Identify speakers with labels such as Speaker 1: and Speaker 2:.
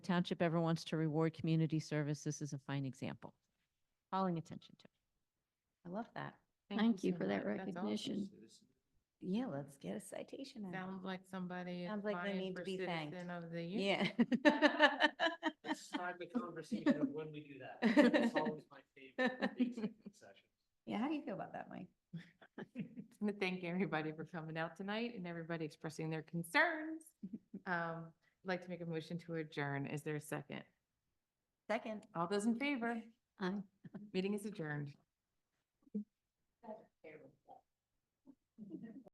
Speaker 1: township ever wants to reward community service, this is a fine example. Calling attention to. it. I love that.
Speaker 2: Thank you
Speaker 3: so
Speaker 2: for that
Speaker 3: much. That's awesome.
Speaker 2: recognition.
Speaker 4: Yeah, let's get a citation out. of
Speaker 3: Sounds like somebody is
Speaker 4: Sounds like they
Speaker 3: applying
Speaker 4: need to
Speaker 3: for
Speaker 4: be thanked.
Speaker 3: citizen of the
Speaker 4: it.
Speaker 3: year.
Speaker 4: Yeah.
Speaker 5: Let's start the conversation of when we do that. That's always my favorite executive session.
Speaker 4: Yeah, how do you feel about that, Mike?
Speaker 3: to thank everybody for coming out tonight and everybody expressing their concerns. Um, I'd like to make a motion to adjourn. Is there a second?
Speaker 4: Second.
Speaker 3: All those in favor?
Speaker 2: Aye.
Speaker 3: Meeting is adjourned.